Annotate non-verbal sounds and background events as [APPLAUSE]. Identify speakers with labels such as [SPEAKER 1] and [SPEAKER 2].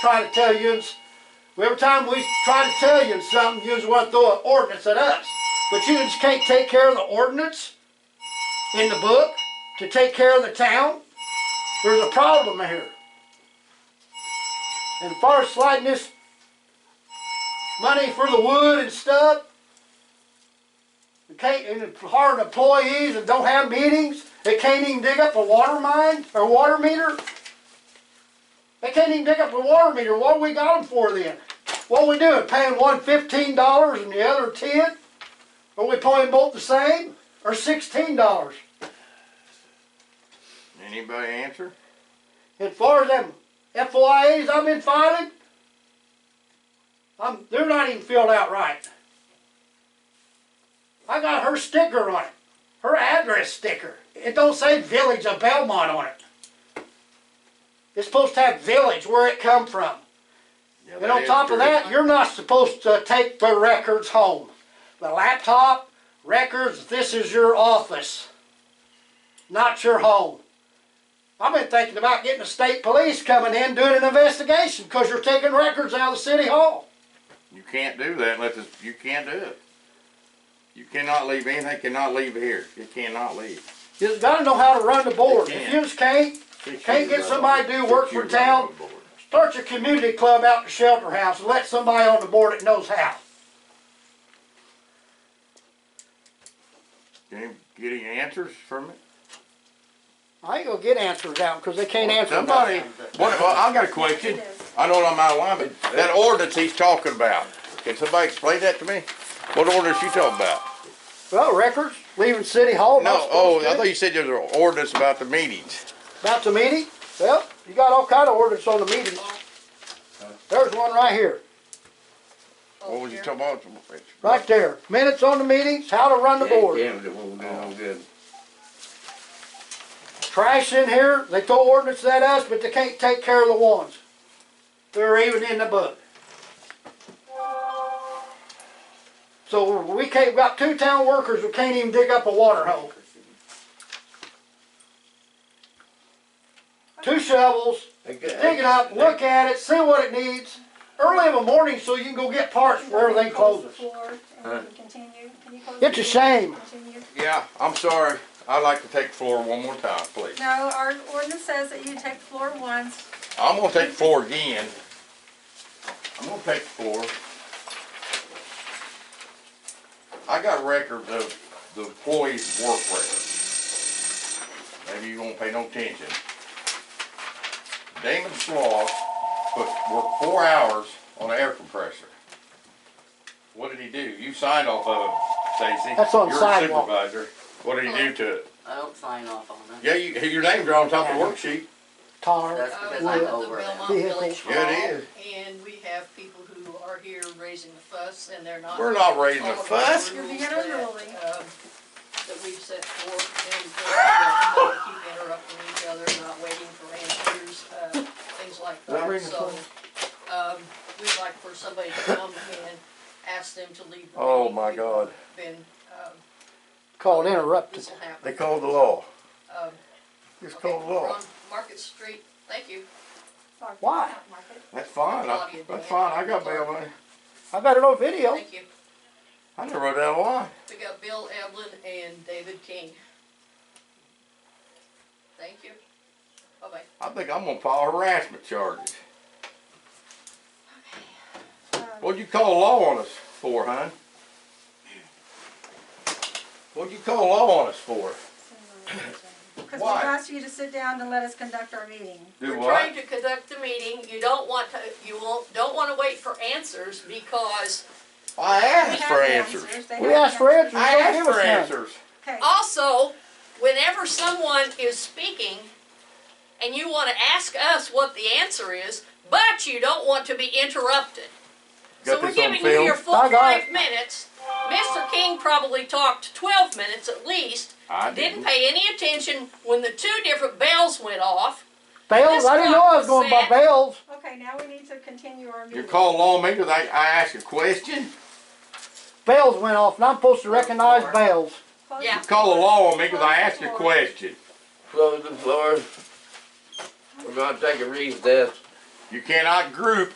[SPEAKER 1] Trying to tell yous, every time we try to tell you something, yous want to throw an ordinance at us. But you just can't take care of the ordinance in the book to take care of the town. There's a problem here. And as far as sliding this money for the wood and stuff, we can't, and hard employees and don't have meetings, they can't even dig up a water mine or water meter. They can't even dig up a water meter. What we got them for then? What we doing? Paying one fifteen dollars and the other ten? Are we paying both the same or sixteen dollars?
[SPEAKER 2] Anybody answer?
[SPEAKER 1] As far as them FOIAs I've been filing, I'm, they're not even filled out right. I got her sticker on it, her address sticker. It don't say Village of Belmont on it. It's supposed to have Village where it come from.
[SPEAKER 2] Yeah,
[SPEAKER 1] And on top of that, you're not supposed to take the records home. The laptop, records, this is your office, not your home. I've been thinking about getting the state police coming in doing an investigation because you're taking records out of the city hall.
[SPEAKER 2] You can't do that unless it's, you can't do it. You cannot leave, anything cannot leave here. It cannot leave.
[SPEAKER 1] You just gotta know how to run the board.
[SPEAKER 2] They
[SPEAKER 1] If
[SPEAKER 2] can't.
[SPEAKER 1] you just can't,
[SPEAKER 2] Six
[SPEAKER 1] Can't
[SPEAKER 2] years
[SPEAKER 1] get
[SPEAKER 2] old.
[SPEAKER 1] somebody to do work
[SPEAKER 2] Six
[SPEAKER 1] for
[SPEAKER 2] years
[SPEAKER 1] town?
[SPEAKER 2] old board.
[SPEAKER 1] start your community club out the shelter house and let somebody on the board that knows how.
[SPEAKER 2] Can you get any answers from it?
[SPEAKER 1] I ain't gonna get answers out because they can't answer
[SPEAKER 2] Somebody,
[SPEAKER 1] nothing.
[SPEAKER 2] what, well, I got a question. I know I'm out of line, but that ordinance he's talking about, can somebody explain that to me? What ordinance you talking about?
[SPEAKER 1] Well, records, leaving city hall. not
[SPEAKER 2] No, oh,
[SPEAKER 1] supposed
[SPEAKER 2] I
[SPEAKER 1] to.
[SPEAKER 2] thought you said there was an ordinance about the meetings.
[SPEAKER 1] About the meeting? Well, you got all kind of ordinance on the meetings. There's one right here,
[SPEAKER 2] What was you talking about?
[SPEAKER 1] right there. Minutes on the meetings, how to run the board.
[SPEAKER 3] Damn, it won't do no good.
[SPEAKER 1] Trash in here, they throw ordinance at us, but they can't take care of the ones. They're even in the book. So we can't, we got two town workers who can't even dig up a water hole. Two shovels, dig it up, look at it, see what it needs, early in the morning so you can go get parts for everything closes. It's a shame.
[SPEAKER 2] Yeah, I'm sorry. I'd like to take the floor one more time, please.
[SPEAKER 4] No, our ordinance says that you take the floor once.
[SPEAKER 2] I'm gonna take the floor again. I'm gonna take the floor. I got records of the employees' work records. Maybe you won't pay no attention. Damon Slaw put, worked four hours on an air compressor. What did he do? You signed off of it, Stacy.
[SPEAKER 1] That's on sidewalk.
[SPEAKER 2] You're a supervisor. What did he do to it?
[SPEAKER 5] I don't sign off on it.
[SPEAKER 2] Yeah, you, your name's right on top of the worksheet.
[SPEAKER 1] Tar,
[SPEAKER 5] That's because I'm
[SPEAKER 1] Well,
[SPEAKER 5] over them.
[SPEAKER 6] Belmont Village
[SPEAKER 2] Yeah, it
[SPEAKER 6] Hall,
[SPEAKER 2] is.
[SPEAKER 6] And we have people who are here raising the fuss and they're not.
[SPEAKER 2] We're not raising a
[SPEAKER 6] following the
[SPEAKER 2] fuss.
[SPEAKER 4] You're
[SPEAKER 6] rules
[SPEAKER 4] being
[SPEAKER 6] that,
[SPEAKER 4] unruly.
[SPEAKER 6] um, That we've set forth and uh, you know, keep interrupting each other, not waiting for answers, uh, things like that.
[SPEAKER 2] reading the
[SPEAKER 6] So, um, we'd like for somebody to come and ask them to leave. the
[SPEAKER 2] Oh,
[SPEAKER 6] meeting.
[SPEAKER 2] my God.
[SPEAKER 6] Then, um,
[SPEAKER 1] called interrupted.
[SPEAKER 6] this will happen.
[SPEAKER 2] They called the law.
[SPEAKER 6] Um,
[SPEAKER 2] Just
[SPEAKER 6] okay,
[SPEAKER 2] called the law.
[SPEAKER 6] we're on Market Street, thank you.
[SPEAKER 1] Why?
[SPEAKER 2] That's fine. I- That's fine. I got bail money.
[SPEAKER 1] I got it on video.
[SPEAKER 6] Thank you.
[SPEAKER 2] I never wrote down a line.
[SPEAKER 6] We got Bill Evelyn and David King. Thank you. Bye-bye.
[SPEAKER 2] I think I'm gonna file harassment charges. What'd you call law on us for, hon? What'd you call law on us for?
[SPEAKER 1] [LAUGHS]
[SPEAKER 4] Because we
[SPEAKER 2] Why?
[SPEAKER 4] asked you to sit down and let us conduct our meeting.
[SPEAKER 2] Do
[SPEAKER 6] We're trying
[SPEAKER 2] what?
[SPEAKER 6] to conduct the meeting, you don't want to, you won't, don't wanna wait for answers because
[SPEAKER 2] I
[SPEAKER 4] They
[SPEAKER 2] asked
[SPEAKER 4] have
[SPEAKER 2] for
[SPEAKER 4] the
[SPEAKER 2] answers.
[SPEAKER 4] They
[SPEAKER 1] We
[SPEAKER 4] have the
[SPEAKER 1] asked for answers,
[SPEAKER 2] I
[SPEAKER 1] don't give
[SPEAKER 2] asked for
[SPEAKER 1] us none.
[SPEAKER 2] answers.
[SPEAKER 4] Okay,
[SPEAKER 6] also, whenever someone is speaking and you wanna ask us what the answer is, but you don't want to be interrupted. So
[SPEAKER 2] Got
[SPEAKER 6] we're
[SPEAKER 2] this on
[SPEAKER 6] giving you your
[SPEAKER 2] film?
[SPEAKER 6] full
[SPEAKER 1] I got it.
[SPEAKER 6] five minutes. Mr. King probably talked twelve minutes at least.
[SPEAKER 2] I
[SPEAKER 6] Didn't
[SPEAKER 2] didn't.
[SPEAKER 6] pay any attention when the two different bells went off.
[SPEAKER 1] Bales, I didn't know I was going by bales.
[SPEAKER 4] okay, now we need to continue our meeting.
[SPEAKER 2] You call law me 'cause I, I asked a question?
[SPEAKER 1] Bells went off, and I'm supposed to recognize bells.
[SPEAKER 4] Close
[SPEAKER 6] Yeah.
[SPEAKER 2] You call the law on me 'cause I asked a question.
[SPEAKER 3] Close the floor. We're gonna take a recess.
[SPEAKER 2] You cannot group